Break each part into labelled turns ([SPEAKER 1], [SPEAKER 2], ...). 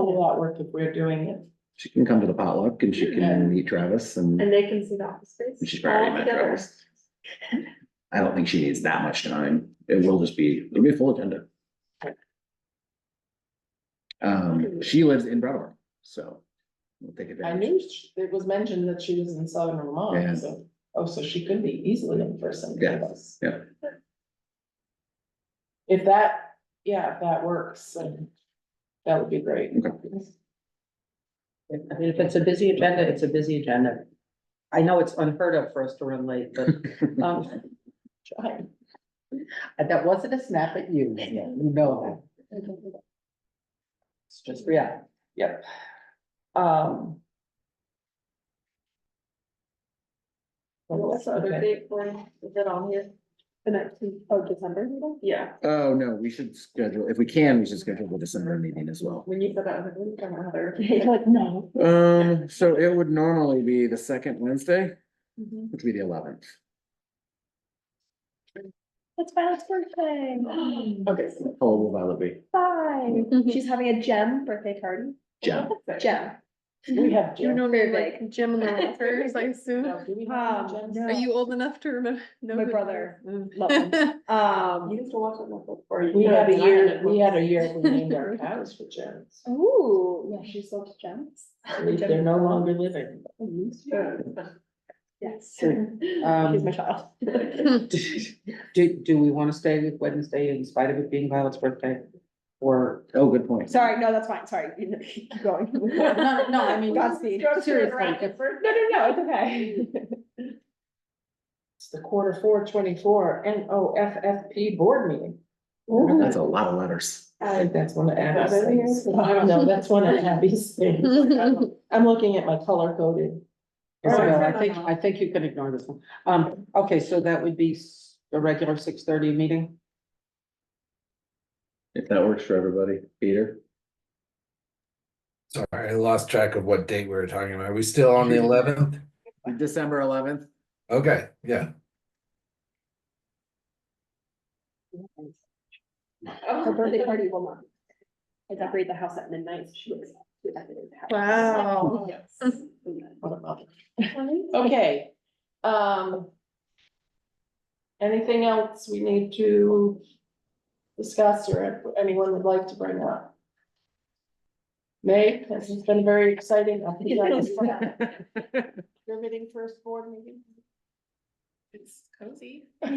[SPEAKER 1] whole lot work if we're doing it.
[SPEAKER 2] She can come to the potluck and she
[SPEAKER 1] Yeah.
[SPEAKER 2] can meet Travis and
[SPEAKER 3] And they can see the office space.
[SPEAKER 2] she's probably
[SPEAKER 3] all
[SPEAKER 2] met
[SPEAKER 3] together.
[SPEAKER 2] Travis. I don't think she needs that much time. It will just be, it'll be a full agenda. Um, she lives in Brattleboro, so we'll take
[SPEAKER 1] I
[SPEAKER 2] advantage.
[SPEAKER 1] knew she- it was mentioned that she was in southern
[SPEAKER 2] Yeah.
[SPEAKER 1] Vermont, so, oh, so she could be easily in person. with
[SPEAKER 2] Yeah,
[SPEAKER 1] us.
[SPEAKER 2] yeah.
[SPEAKER 1] If that, yeah, if that works, then that would be great.
[SPEAKER 4] I mean, if it's a busy agenda, it's a busy agenda. I know it's unheard of for us to run late, but, um,
[SPEAKER 1] Try.
[SPEAKER 4] that wasn't a snap at you, you know that. It's just reality.
[SPEAKER 1] Yep. Um.
[SPEAKER 3] What's the other
[SPEAKER 1] Okay.
[SPEAKER 3] date for, is it on here? The nineteenth of December, yeah,
[SPEAKER 2] Oh, no, we should schedule, if we can, we should schedule the December meeting as well.
[SPEAKER 3] when you said that, I was like, we don't have it. Like, no.
[SPEAKER 2] Um, so it would normally be the second Wednesday,
[SPEAKER 3] Mhm.
[SPEAKER 2] which would be the eleventh.
[SPEAKER 5] It's Violet's birthday.
[SPEAKER 1] Okay.
[SPEAKER 2] Oh, will Violet be?
[SPEAKER 5] Five.
[SPEAKER 4] Mm-hmm.
[SPEAKER 5] She's having a gem birthday party.
[SPEAKER 2] Jen.
[SPEAKER 5] Gem.
[SPEAKER 1] We have.
[SPEAKER 3] You
[SPEAKER 1] Jen.
[SPEAKER 3] know,
[SPEAKER 5] They're
[SPEAKER 3] they're like Jim and the Walters, I assume.
[SPEAKER 1] No, do we have
[SPEAKER 5] Um,
[SPEAKER 1] Jen's?
[SPEAKER 5] no.
[SPEAKER 3] Are you old enough to remember? know
[SPEAKER 5] My
[SPEAKER 4] Mm-hmm.
[SPEAKER 3] who-
[SPEAKER 5] brother.
[SPEAKER 3] Mm.
[SPEAKER 5] Love him.
[SPEAKER 1] You
[SPEAKER 5] Um,
[SPEAKER 1] used to watch it before. We had a Oh, year, we had a year we named our cows for Jen's.
[SPEAKER 5] ooh, yeah, she sold gems.
[SPEAKER 1] They're no longer living.
[SPEAKER 5] Yes.
[SPEAKER 4] Um,
[SPEAKER 5] She's my child.
[SPEAKER 4] Do, do we want to stay with Wednesday in spite of it being Violet's birthday? Or,
[SPEAKER 2] Oh, good point.
[SPEAKER 5] Sorry, no, that's fine. Sorry. You know, Keep going.
[SPEAKER 4] no, no, I mean,
[SPEAKER 5] Godspeed.
[SPEAKER 4] seriously,
[SPEAKER 5] No, no, no, it's okay.
[SPEAKER 1] It's the quarter four twenty-four N O F F P board meeting.
[SPEAKER 2] That's a lot of letters.
[SPEAKER 1] I think that's one of Abby's
[SPEAKER 5] Is that in here?
[SPEAKER 1] things. No, that's one of Abby's things. I'm looking at my color coded.
[SPEAKER 4] Isabel, I think, I think you can ignore this one. Um, okay, so that would be s- a regular six thirty meeting?
[SPEAKER 2] If that works for everybody, Peter.
[SPEAKER 6] Sorry, I lost track of what date we were talking about. Are we still on the eleventh?
[SPEAKER 2] December eleventh.
[SPEAKER 6] Okay, yeah.
[SPEAKER 1] Oh,
[SPEAKER 5] Her birthday party will not. I decorate the house at midnight. so She looks.
[SPEAKER 3] Wow.
[SPEAKER 5] Yes.
[SPEAKER 1] What about it? Okay, um. Anything else we need to discuss or anyone would like to bring up? May, this has been very exciting. I think I just- Your meeting first board meeting?
[SPEAKER 3] It's cozy.
[SPEAKER 2] That's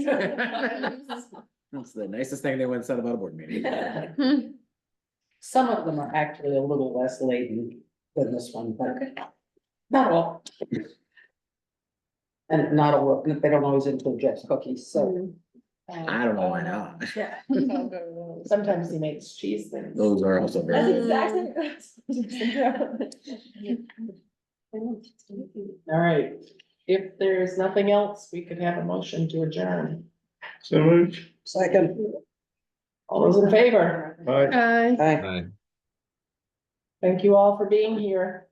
[SPEAKER 2] the nicest thing anyone said about a board meeting.
[SPEAKER 4] Some of them are actually a little less laden than this one, but not all. And not all, they don't always include Jeff's cookies, so.
[SPEAKER 2] I don't know why not.
[SPEAKER 3] Yeah.
[SPEAKER 1] Sometimes he makes cheese things.
[SPEAKER 2] Those are also
[SPEAKER 5] That's
[SPEAKER 2] very,
[SPEAKER 5] exactly.
[SPEAKER 1] All right, if there's nothing else, we could have a motion to adjourn.
[SPEAKER 7] So moved.
[SPEAKER 4] Second.
[SPEAKER 1] All those in favor?
[SPEAKER 7] Aye.
[SPEAKER 3] Hi.
[SPEAKER 4] Aye.
[SPEAKER 6] Aye.
[SPEAKER 1] Thank you all for being here.